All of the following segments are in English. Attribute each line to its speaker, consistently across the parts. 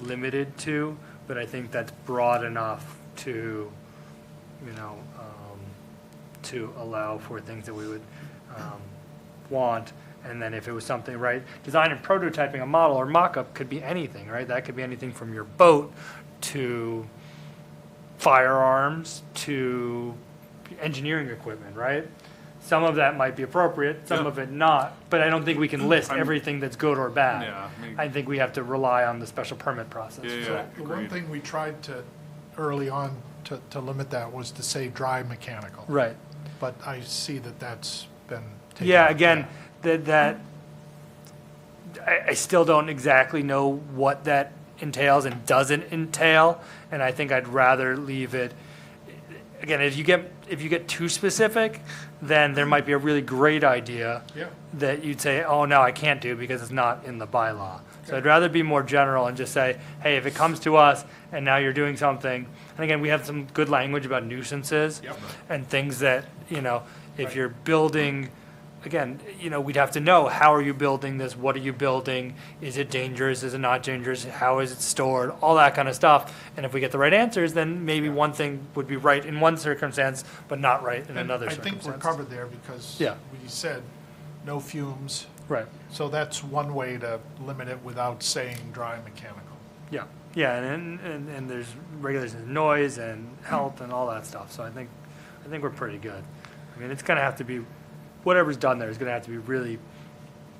Speaker 1: limited to, but I think that's broad enough to, you know, um, to allow for things that we would um, want. And then if it was something, right, design and prototyping a model or mock-up could be anything, right? That could be anything from your boat to firearms to engineering equipment, right? Some of that might be appropriate, some
Speaker 2: Yeah.
Speaker 1: of it not, but I don't think we can list
Speaker 2: I'm-
Speaker 1: everything that's good or bad.
Speaker 2: Yeah, I mean-
Speaker 1: I think we have to rely on the special permit process.
Speaker 2: Yeah, yeah,
Speaker 3: So The one
Speaker 2: agreed.
Speaker 3: thing we tried to, early on, to, to limit that was to say dry mechanical.
Speaker 1: Right.
Speaker 3: But I see that that's been taken.
Speaker 1: Yeah,
Speaker 3: out.
Speaker 1: again, that, that, I, I still don't exactly know what that entails and doesn't entail, and I think I'd rather leave it, again, if you get, if you get too specific, then there might be a really great idea
Speaker 3: Yeah,
Speaker 1: that you'd say, oh, no, I can't do because it's not in the bylaw. So I'd rather be more general and just say, hey, if it comes to us and now you're doing something, and again, we have some good language about nuisances
Speaker 3: Yep.
Speaker 1: and things that, you know, if you're building, again, you know, we'd have to know, how are you building this? What are you building? Is it dangerous? Is it not dangerous? How is it stored? All that kind of stuff. And if we get the right answers, then maybe one thing would be right in one circumstance, but not right in
Speaker 3: and
Speaker 1: another
Speaker 3: I
Speaker 1: circumstance.
Speaker 3: think we're covered there because
Speaker 1: Yeah.
Speaker 3: we said no fumes,
Speaker 1: Right.
Speaker 3: so that's one way to limit it without saying dry mechanical.
Speaker 1: Yeah, yeah, and, and, and there's regulations, of noise and health and all that stuff, so I think, I think we're pretty good. I mean, it's gonna have to be, whatever's done there is gonna have to be really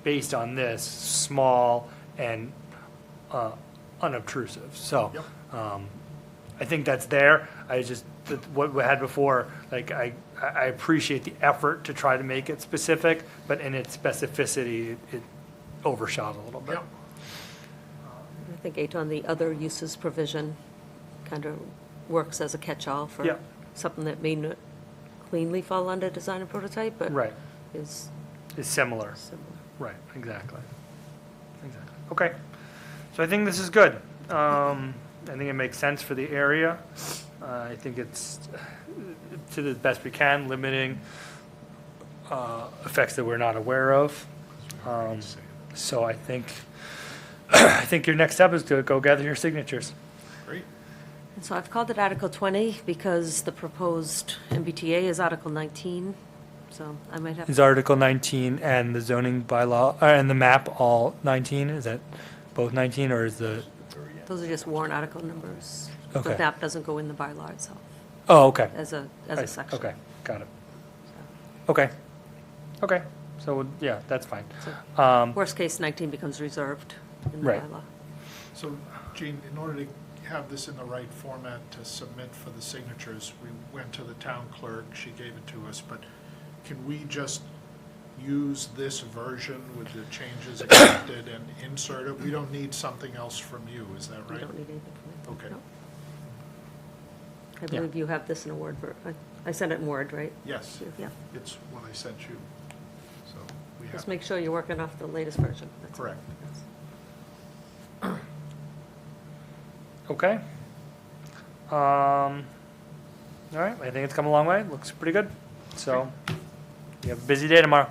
Speaker 1: based on this, small and, uh, unobtrusive, so. Um, I think that's there, I just, that what we had before, like, I, I I appreciate the effort to try to make it specific, but in its specificity, it overshot a little bit.
Speaker 3: Yep,
Speaker 4: I think eight on the other uses provision kind of works as a catch-all
Speaker 1: Yeah.
Speaker 4: for something that may not cleanly fall under design and prototype, but
Speaker 1: Right,
Speaker 4: is
Speaker 1: it's similar.
Speaker 4: similar.
Speaker 1: Right, exactly. Exactly. Okay. So I think this is good. Um, I think it makes sense for the area. Uh, I think it's uh, to the best we can, limiting uh, effects that we're not aware of. Um, so I think, I think your next step is to go gather your signatures.
Speaker 2: Great.
Speaker 4: And So I've called it Article 20 because the proposed MBTA is Article 19, so I might have,
Speaker 1: Is Article 19 and the zoning bylaw, uh, and the map all 19? Is that both 19 or is the,
Speaker 4: those are just warrant article numbers.
Speaker 1: Okay.
Speaker 4: The map doesn't go in the bylaw itself
Speaker 1: oh, okay.
Speaker 4: as a, as
Speaker 1: I-
Speaker 4: a section.
Speaker 1: Okay, got it. Okay, okay, so, yeah, that's fine.
Speaker 4: So
Speaker 1: Um,
Speaker 4: Worst case, 19 becomes reserved in the
Speaker 1: Right.
Speaker 4: bylaw.
Speaker 3: so Gene, in order to have this in the right format to submit for the signatures, we went to the town clerk, she gave it to us, but can we just use this version with the changes accepted and insert it? We don't need something else from you, is that
Speaker 4: We
Speaker 3: right?
Speaker 4: don't need anything from
Speaker 3: Okay.
Speaker 4: it. no. I believe you have this in a Word, ver- I- I sent it in Word, right?
Speaker 3: Yes,
Speaker 4: Yeah,
Speaker 3: it's what I sent you, so we have.
Speaker 4: just make sure you're working off the latest version. That's all.
Speaker 3: Correct.
Speaker 4: Yes.
Speaker 1: Okay. Um, all right, I think it's come a long way, looks pretty good, so, you have a busy day tomorrow.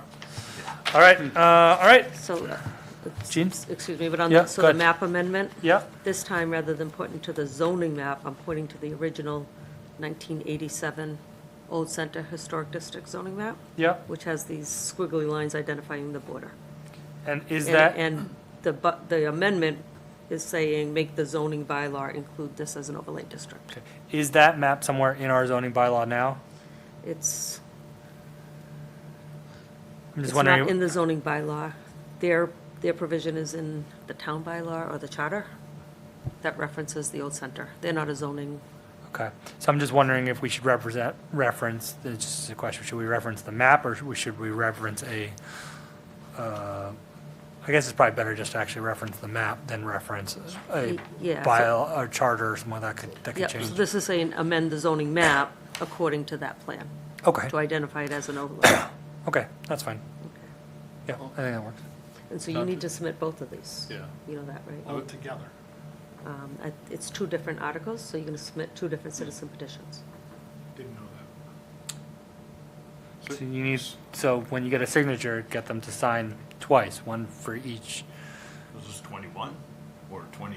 Speaker 1: All right,
Speaker 4: Hmm.
Speaker 1: uh, all right,
Speaker 4: So, uh, it's-
Speaker 1: Jean?
Speaker 4: excuse me, but on,
Speaker 1: Yeah,
Speaker 4: the-
Speaker 1: go
Speaker 4: so the
Speaker 1: ahead.
Speaker 4: map amendment,
Speaker 1: yeah,
Speaker 4: this time, rather than pointing to the zoning map, I'm pointing to the original 1987 Old Center Historic District zoning map,
Speaker 1: yeah,
Speaker 4: which has these squiggly lines identifying the border.
Speaker 1: and is
Speaker 4: And-
Speaker 1: that,
Speaker 4: And the, bu- the amendment is saying, make the zoning bylaw include this as an overlay district.
Speaker 1: okay, is that map somewhere in our zoning bylaw now?
Speaker 4: It's,
Speaker 1: I'm
Speaker 4: it's
Speaker 1: just
Speaker 4: not
Speaker 1: wondering,
Speaker 4: in the zoning bylaw. Their, their provision is in the town bylaw or the charter that references the old center. They're not a zoning,
Speaker 1: okay, so I'm just wondering if we should represent, reference, it's just a question, should we reference the map, or should we- should we reference a, uh, I guess it's probably better just to actually reference the map than reference a
Speaker 4: yeah. so-
Speaker 1: bylaw or charter or something that could, that
Speaker 4: Yeah,
Speaker 1: could
Speaker 4: so
Speaker 1: change.
Speaker 4: this is saying amend the zoning map according to that plan,
Speaker 1: Okay,
Speaker 4: to identify it as an overlay.
Speaker 1: okay, that's fine. Yeah, I think that works.
Speaker 4: And so you need to submit both of these.
Speaker 2: Yeah.
Speaker 4: You know that,
Speaker 3: All
Speaker 4: right?
Speaker 3: together.
Speaker 4: Um, I- It's two different articles, so you're going to submit two different citizen petitions.
Speaker 3: Didn't know that.
Speaker 1: So you need, so when you get a signature, get them to sign twice, one for each
Speaker 2: This is 21 or 20?